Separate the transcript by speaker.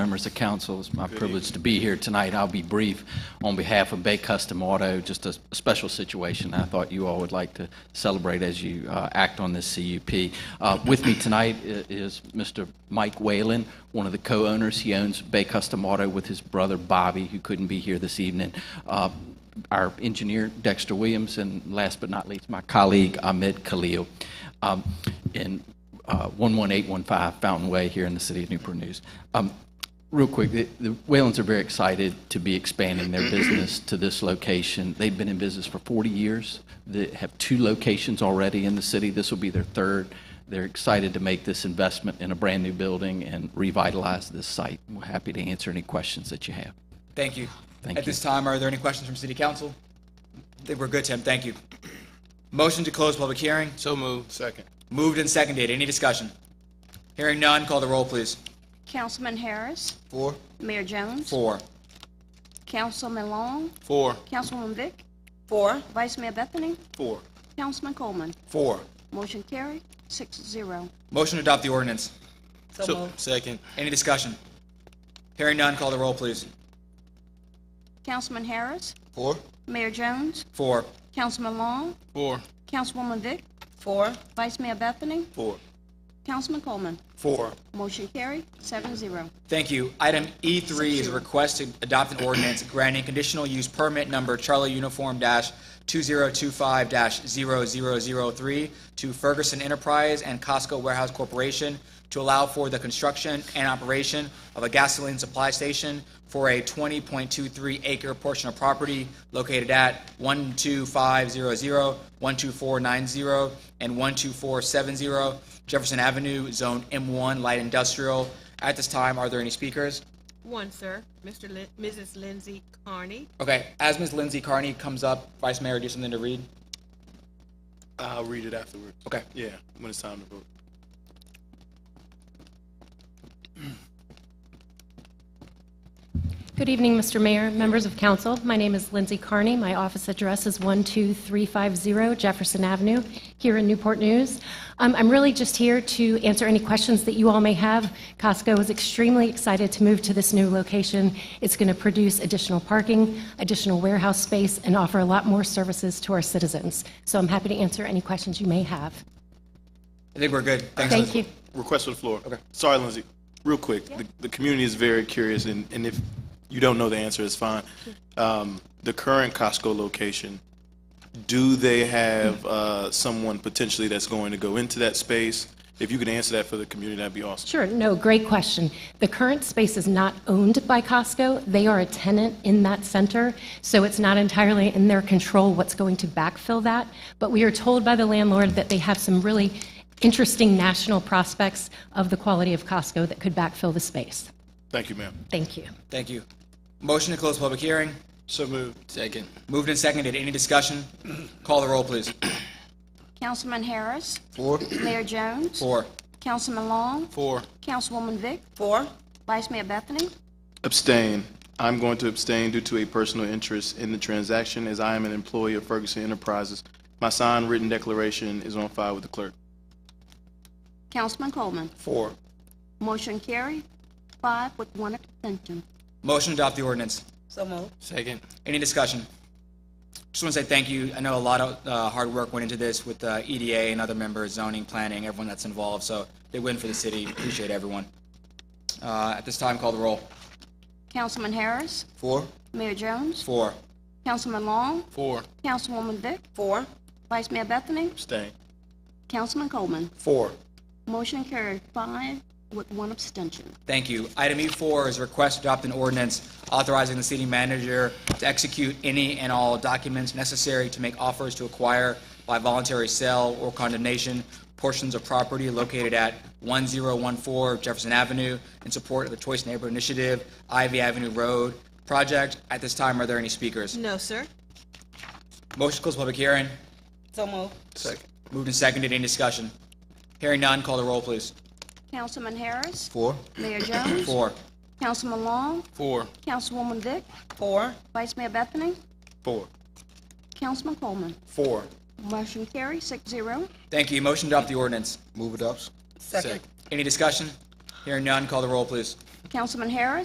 Speaker 1: Members of council, it's my privilege to be here tonight. I'll be brief on behalf of Bay Custom Auto, just a special situation I thought you all would like to celebrate as you uh, act on this CUP. Uh, With me tonight i- is Mr. Mike Whalen, one of the co-owners. He owns Bay Custom Auto with his brother Bobby, who couldn't be here this evening. Uh, Our engineer Dexter Williams, and last but not least, my colleague Ahmed Khalil. Um, And uh, 11815 Fountain Way here in the city of Newport News. Um, Real quick, the the Whalens are very excited to be expanding their business to this location. They've been in business for 40 years. They have two locations already in the city. This will be their third. They're excited to make this investment in a brand-new building and revitalize this site. We're happy to answer any questions that you have.
Speaker 2: Thank you.
Speaker 1: Thank
Speaker 2: At
Speaker 1: you.
Speaker 2: this time, are there any questions from City Council? I think We're good, Tim. Thank you. Motion to close public hearing.
Speaker 3: So moved. Second.
Speaker 2: Moved and seconded. Any discussion? Hearing none, call the roll, please.
Speaker 4: Councilman Harris,
Speaker 3: Four.
Speaker 4: Mayor Jones.
Speaker 2: Four.
Speaker 4: Councilman Long,
Speaker 3: Four.
Speaker 4: Councilwoman Vick,
Speaker 5: Four,
Speaker 4: Vice Mayor Bethany,
Speaker 3: Four.
Speaker 4: Councilman Coleman.
Speaker 2: Four.
Speaker 4: Motion carried, six zero.
Speaker 2: Motion to adopt the ordinance.
Speaker 5: so
Speaker 3: So,
Speaker 5: moved.
Speaker 3: second.
Speaker 2: Any discussion? Hearing none, call the roll, please.
Speaker 4: Councilman Harris,
Speaker 3: Four.
Speaker 4: Mayor Jones,
Speaker 2: Four.
Speaker 4: Councilman Long,
Speaker 3: Four.
Speaker 4: Councilwoman Vick,
Speaker 5: Four,
Speaker 4: Vice Mayor Bethany,
Speaker 3: Four.
Speaker 4: Councilman Coleman.
Speaker 3: Four.
Speaker 4: Motion carried, seven zero.
Speaker 2: Thank you. Item E3 is a request to adopt an ordinance granting conditional use permit number Charlie Uniform dash 2025-0003 to Ferguson Enterprise and Costco Warehouse Corporation to allow for the construction and operation of a gasoline supply station for a 20.23 acre portion of property located at 12500, 12490, and 12470 Jefferson Avenue, Zone M1, Light Industrial. At this time, are there any speakers?
Speaker 6: One, sir. Mr. Lin- Mrs. Lindsay Carney.
Speaker 2: Okay, as Ms. Lindsay Carney comes up, Vice Mayor, do you have something to read?
Speaker 3: I'll read it afterwards.
Speaker 2: Okay.
Speaker 3: Yeah, when it's time to vote.
Speaker 7: Good evening, Mr. Mayor, members of council. My name is Lindsay Carney. My office address is 12350 Jefferson Avenue here in Newport News. Um, I'm really just here to answer any questions that you all may have. Costco is extremely excited to move to this new location. It's going to produce additional parking, additional warehouse space, and offer a lot more services to our citizens. So I'm happy to answer any questions you may have.
Speaker 2: I think we're good. Thanks,
Speaker 7: Thank
Speaker 2: Lindsay.
Speaker 7: you.
Speaker 3: Request for the floor. Okay. Sorry, Lindsay. Real quick, the, the community is very curious, and, and if you don't know the answer, it's fine. Um, the current Costco location, do they have uh, someone potentially that's going to go into that space? If you could answer that for the community, that'd be awesome.
Speaker 7: Sure, no, great question. The current space is not owned by Costco. They are a tenant in that center, so it's not entirely in their control what's going to backfill that. But we are told by the landlord that they have some really interesting national prospects of the quality of Costco that could backfill the space.
Speaker 3: Thank you, ma'am.
Speaker 7: Thank you.
Speaker 2: Thank you. Motion to close public hearing.
Speaker 3: So moved. Second.
Speaker 2: Moved and seconded. Any discussion? Call the roll, please.
Speaker 4: Councilman Harris,
Speaker 3: Four.
Speaker 4: Mayor Jones.
Speaker 2: Four.
Speaker 4: Councilman Long,
Speaker 3: Four.
Speaker 4: Councilwoman Vick,
Speaker 5: four,
Speaker 4: Vice Mayor Bethany,
Speaker 3: Abstain. I'm going to abstain due to a personal interest in the transaction as I am an employee of Ferguson Enterprises. My signed written declaration is on file with the clerk.
Speaker 4: Councilman Coleman.
Speaker 3: Four.
Speaker 4: Motion carried, five with one abstention.
Speaker 2: Motion to adopt the ordinance.
Speaker 5: so moved.
Speaker 3: Second.
Speaker 2: Any discussion? Just want to say thank you. I know a lot of uh, hard work went into this with uh, EDA and other members, zoning, planning, everyone that's involved. So they win for the city. Appreciate everyone. Uh, At this time, call the roll.
Speaker 4: Councilman Harris,
Speaker 2: Four.
Speaker 4: Mayor Jones,
Speaker 2: Four.
Speaker 4: Councilman Long,
Speaker 3: Four.
Speaker 4: Councilwoman Vick,
Speaker 5: Four,
Speaker 4: Vice Mayor Bethany,
Speaker 3: Abstain.
Speaker 4: Councilman Coleman.
Speaker 2: Four.
Speaker 4: Motion carried five with one abstention.
Speaker 2: Thank you. Item E4 is request to adopt an ordinance authorizing the city manager to execute any and all documents necessary to make offers to acquire by voluntary sale or condemnation portions of property located at 1014 Jefferson Avenue in support of the Choice Neighborhood Initiative, Ivy Avenue Road project. At this time, are there any speakers?
Speaker 6: No, sir.
Speaker 2: Motion to close public hearing.
Speaker 5: so moved.
Speaker 3: Second.
Speaker 2: Moved and seconded. Any discussion? Hearing none, call the roll, please.
Speaker 4: Councilman Harris,
Speaker 2: Four.
Speaker 4: Mayor Jones,
Speaker 2: Four.
Speaker 4: Councilman Long,
Speaker 3: Four.
Speaker 4: Councilwoman Vick,
Speaker 5: Four,
Speaker 4: Vice Mayor Bethany,
Speaker 3: Four.
Speaker 4: Councilman Coleman.
Speaker 2: Four.
Speaker 4: Motion carried, six zero.
Speaker 2: Thank you. Motion to adopt the ordinance.
Speaker 5: second.
Speaker 2: Any discussion? Hearing none, call the roll, please.
Speaker 4: Councilman Harris?